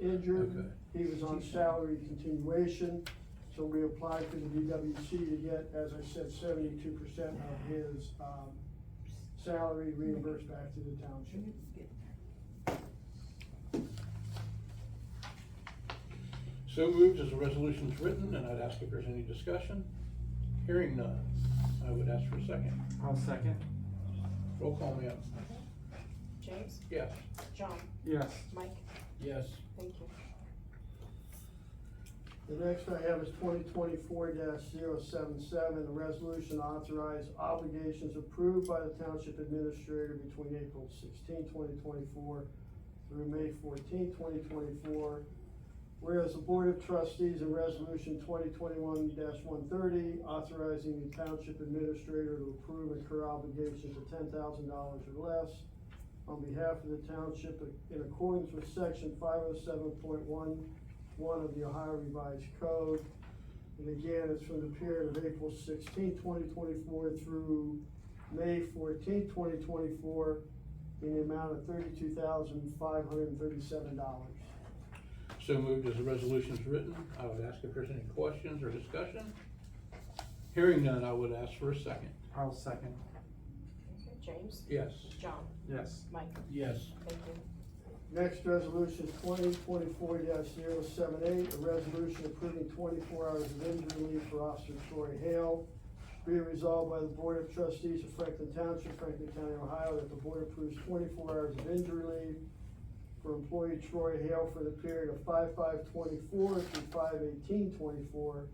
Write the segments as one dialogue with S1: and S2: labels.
S1: injured,
S2: Okay.
S1: he was on salary continuation, so we applied to the DWC to get, as I said, seventy-two percent of his, um, salary reimbursed back to the township.
S2: So moved as the resolution's written, and I'd ask if there's any discussion. Hearing none, I would ask for a second.
S3: I'll second.
S2: Roll call, ma'am.
S4: James,
S2: Yes.
S4: John,
S3: Yes.
S4: Mike,
S2: Yes.
S4: thank you.
S1: The next I have is twenty twenty-four 77 a resolution authorize obligations approved by the township administrator between April 16, 2024, through May 14, 2024. Whereas the Board of Trustees in Resolution twenty twenty-one one thirty, authorizing the township administrator to approve and incur obligations of ten thousand dollars or less on behalf of the township in accordance with section five oh seven point one one of the Ohio Revised Code. And again, it's from the period of April 16, 2024, through May 14, 2024, in the amount of thirty-two thousand, five hundred and thirty-seven dollars.
S2: So moved as the resolution's written, I would ask if there's any questions or discussion. Hearing none, I would ask for a second.
S3: I'll second.
S4: Okay, James,
S2: Yes.
S4: John,
S3: Yes.
S4: Mike,
S2: Yes.
S4: thank you.
S1: Next resolution is twenty twenty-four 78 a resolution approving twenty-four hours of injury leave for Officer Troy Hale. Be it resolved by the Board of Trustees of Franklin Township, Franklin County, Ohio, that the board approves twenty-four hours of injury leave for employee Troy Hale for the period of five-five twenty-four through five-eighteen twenty-four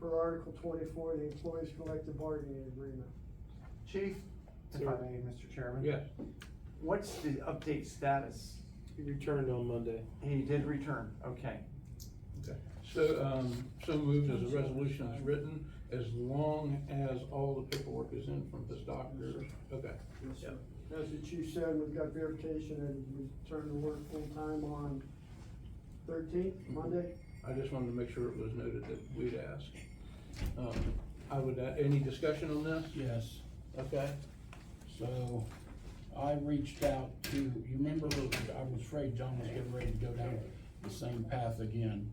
S1: per Article twenty-four of the Employees Collective Bargaining Agreement.
S3: Chief, if I
S5: Sir.
S3: may, Mr. Chairman.
S2: Yes.
S3: What's the update status?
S5: He returned on Monday.
S3: He did return, okay.
S2: So, um, so moved as the resolution is written, as long as all the paperwork is in from this doctor. Okay.
S1: Yes, sir. As the chief said, we've got verification and we turn to work full-time on thirteenth, Monday.
S2: I just wanted to make sure it was noted that we'd ask. Um, I would, a- any discussion on this?
S6: Yes,
S2: Okay.
S6: so I reached out to, you remember, I was afraid John was getting ready to go down the same path again.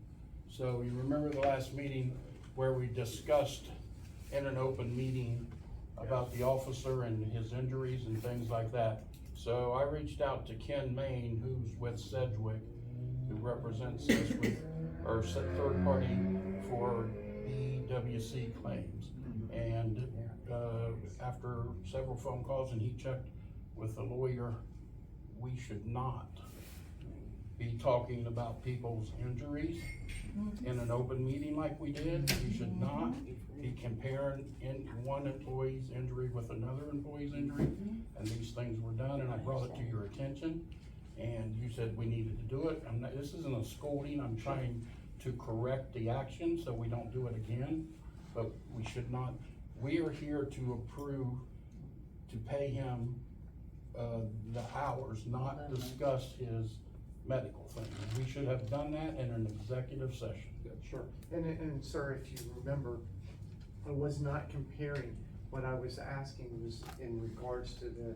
S6: So you remember the last meeting where we discussed in an open meeting about the officer and his injuries and things like that. So I reached out to Ken Main, who's with Sedgwick, who represents Sedgwick, or se- third party for BWC claims. And, uh, after several phone calls and he checked with the lawyer, we should not be talking about people's injuries in an open meeting like we did. We should not be comparing in, one employee's injury with another employee's injury. And these things were done and I brought it to your attention and you said we needed to do it. I'm not, this isn't a scolding, I'm trying to correct the action so we don't do it again. But we should not, we are here to approve, to pay him, uh, the hours, not discuss his medical thing. We should have done that in an executive session.
S3: Sure. And, and sir, if you remember, I was not comparing. What I was asking was in regards to the,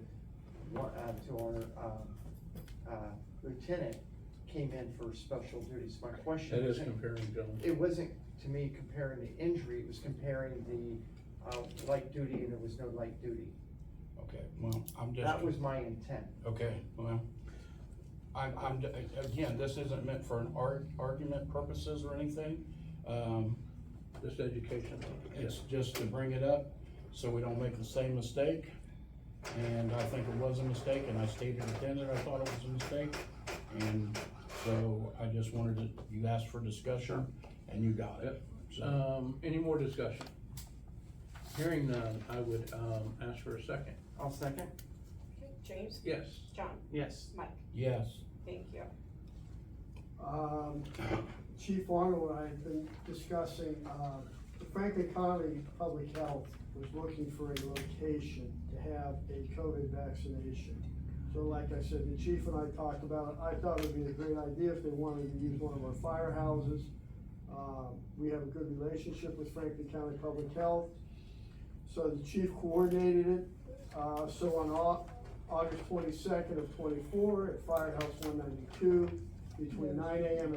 S3: what, uh, to our, um, uh, lieutenant came in for special duties. My question.
S2: That is
S3: wasn't-
S2: comparing, gentlemen.
S3: It wasn't, to me, comparing the injury, it was comparing the, uh, light duty and there was no light duty.
S6: Okay, well, I'm just.
S3: That was my intent.
S6: Okay, well, I'm, I'm, again, this isn't meant for an ar- argument purposes or anything. Um,
S2: This education.
S6: It's just to bring it up so we don't make the same mistake. And I think it was a mistake and I stated it then that I thought it was a mistake. And so I just wanted to, you asked for discussion and you got it. So,
S2: Um, any more discussion? Hearing none, I would, um, ask for a second.
S3: I'll second.
S4: Okay, James,
S2: Yes.
S4: John,
S3: Yes.
S4: Mike,
S6: yes,
S4: thank you.
S1: Um, Chief Arnold and I have been discussing, uh, the Franklin County Public Health was looking for a location to have a COVID vaccination. So like I said, the chief and I talked about, it. I thought it would be a great idea if they wanted to use one of our firehouses. Uh, we have a good relationship with Franklin County Public Health. So the chief coordinated it, uh, so on Au- August twenty-second of twenty-four at Firehouse one ninety-two, between nine AM and